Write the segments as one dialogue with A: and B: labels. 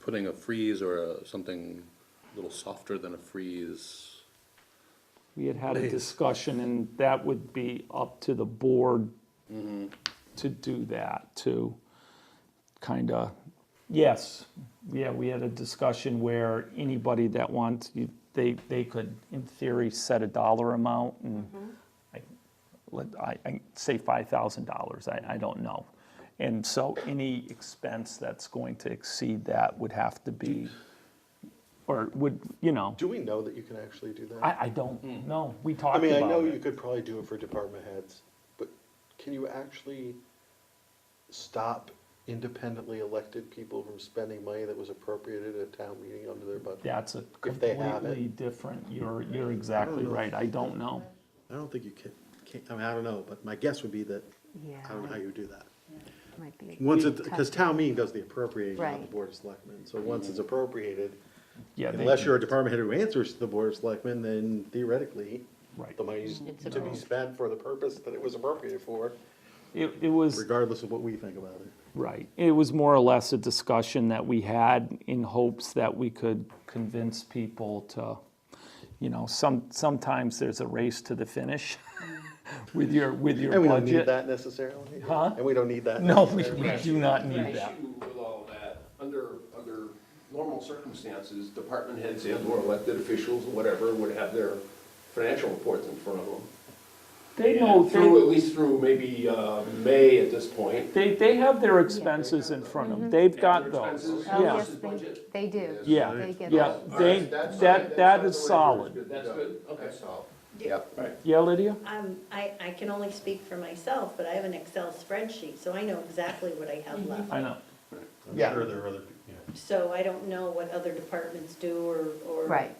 A: putting a freeze or a- something a little softer than a freeze.
B: We had had a
A: Please.
B: discussion, and that would be up to the board to do that, to kind of, yes, yeah, we had a discussion where anybody that wants, you- they, they could, in theory, set a dollar amount, and I, let, I, I say five thousand dollars, I, I don't know. And so any expense that's going to exceed that would have to be, or would, you know,
C: Do we know that you can actually do that?
B: I, I
D: Hmm.
B: don't know, we talked
C: I
B: about
C: mean,
B: it.
C: I know you could probably do it for department heads, but can you actually stop independently elected people from spending money that was appropriated at a town meeting under their budget?
B: That's a
C: If they have it.
B: completely different, you're, you're exactly
E: know.
B: right, I don't know.
E: I don't think you can, can, I mean, I don't know, but my guess would be that,
F: Yeah,
E: I don't know how you would do that.
F: might be.
E: Once it, because town meeting does the appropriating on the
F: Right.
E: board of selectmen, so once it's appropriated,
B: Yeah, they-
E: unless you're a department head who answers to the board of selectmen, then theoretically,
B: Right.
E: the money's
F: It's
E: to be
F: approved.
E: spent for the purpose that it was appropriated for,
B: It, it was,
E: regardless of what we think about it.
B: right, it was more or less a discussion that we had in hopes that we could convince people to, you know, some, sometimes there's a race to the finish with your, with your
E: And we don't need
B: budget.
E: that necessarily.
B: Huh?
E: And we don't need that.
B: No, we,
E: necessarily.
B: we do not need
D: The
B: that.
D: issue with all that, under, under normal circumstances, department heads and or elected officials, whatever, would have their financial reports in front of them.
B: They know,
D: Through,
B: they,
D: at least through maybe, uh, May at this point.
B: they, they have their expenses in front of them, they've got
D: Their
B: those,
D: expenses
F: Oh,
B: Mm-hmm. yeah,
F: yes,
D: versus
F: they-
D: budget.
F: They do.
B: yeah,
F: They get
B: yeah,
F: it.
B: they,
D: That's
B: that,
D: fine,
B: that
D: that's
B: is
D: fine, the way
B: solid.
D: it is, good, That's good, okay. Yep. Right.
B: Yeah, Lydia?
G: Um, I, I can only speak for myself, but I have an Excel spreadsheet, so I know exactly what I have left.
B: I know.
E: I'm sure there are other, yeah.
G: So I don't know what other departments do or, or.
F: Right.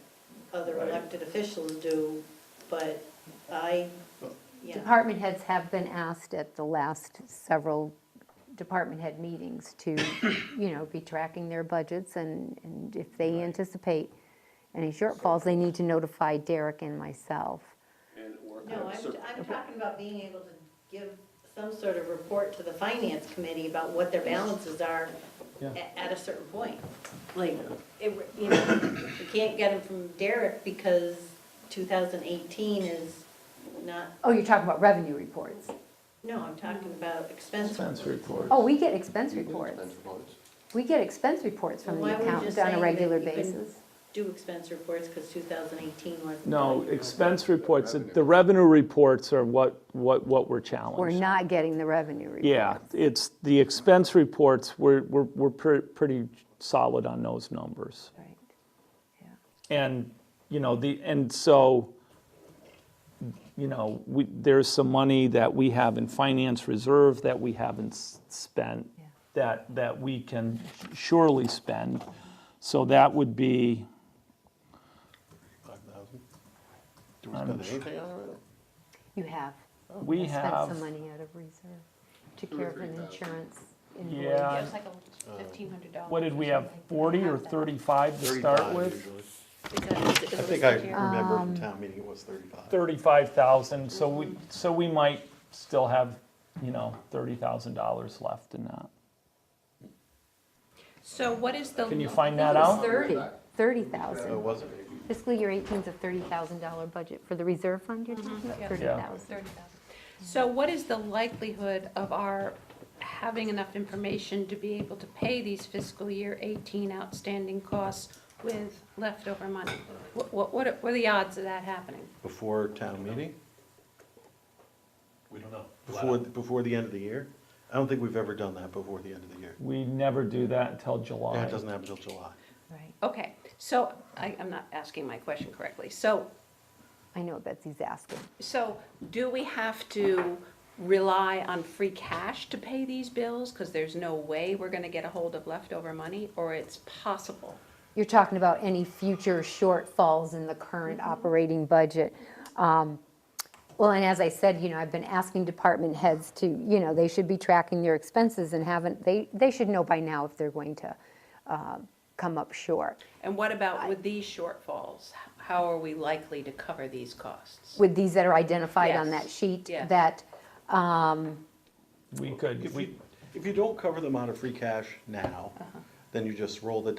G: Other
D: Right.
G: elected officials do, but I, yeah,
F: Department heads have been asked at the last several department head meetings to, you know, be tracking their budgets and, and if they anticipate any shortfalls, they need to notify Derek and myself.
D: And or kind
G: no,
D: of
G: I'm,
D: cer-
G: I'm talking about being able to give some sort of report to the finance committee about what their balances are at, at a certain point. Like, it, you know, you can't get them from Derek because two thousand eighteen is not
F: Oh, you're talking about revenue reports?
G: No, I'm talking about expense.
B: Expense report.
F: Oh, we get expense reports. We get expense reports from
G: Why
F: the
G: were you
F: accountant
G: just
F: on
G: saying
F: a
G: that
F: regular
G: you couldn't-
F: basis.
G: Do expense reports because 2018 wasn't.
B: No, expense reports, the revenue reports are what, what, what we're challenged.
F: We're not getting the revenue report.
B: Yeah, it's, the expense reports, we're, we're, we're pre- pretty solid on those numbers.
F: Right.
B: And, you know, the, and so, you know, we, there's some money that we have in finance reserve that we haven't s- spent,
F: Yeah.
B: that, that we can surely spend. So that would be,
E: Five thousand? Um, Do we spend anything on it? really?
F: You have.
B: we
F: I
B: have.
F: Spent some money out of reserve to care for an insurance invoice.
B: Yeah.
H: It's like a fifteen hundred dollars.
B: What did we have, 40 or 35 to start
E: 35
B: with?
E: usually.
H: I
E: I think I remember from town meeting it was thirty-five.
B: 35,000, so we, so we might still have, you know, $30,000 left in that.
H: So what is the?
B: Can you
H: lo-
B: find that
F: It's
B: out?
F: thirty, thirty
E: Oh,
F: thousand.
E: was it?
F: Fiscal year eighteen's a thirty thousand dollar budget for the reserve fund you're talking about,
H: Yeah.
F: Mm-hmm, thirty thousand.
H: 30,000. So what is the likelihood of our having enough information to be able to pay these fiscal year eighteen outstanding costs with leftover money? What, what, what are- what are the odds of that happening?
E: Before town meeting?
D: We don't know.
E: Before, before the end of the year? I don't think we've ever done that before the end of the year.
B: We never do that until
E: Yeah,
B: July.
E: it doesn't happen until July.
F: Right.
H: Okay, so I, I'm not asking my question correctly. So
F: I know Betsy's asking.
H: So do we have to rely on free cash to pay these bills? Because there's no way we're going to get a hold of leftover money, or it's possible?
F: You're talking about any future shortfalls in the current operating budget. Um, Well, and as I said, you know, I've been asking department heads to, you know, they should be tracking their expenses and haven't, they, they should know by now if they're going to uh, come up short.
H: And what about with these shortfalls? How are we likely to cover these costs?
F: With these that are identified on
H: Yes,
F: that sheet,
H: yes.
F: that,
B: We could,
E: If
B: we
E: you, if you don't cover them out of free cash now, then you just roll the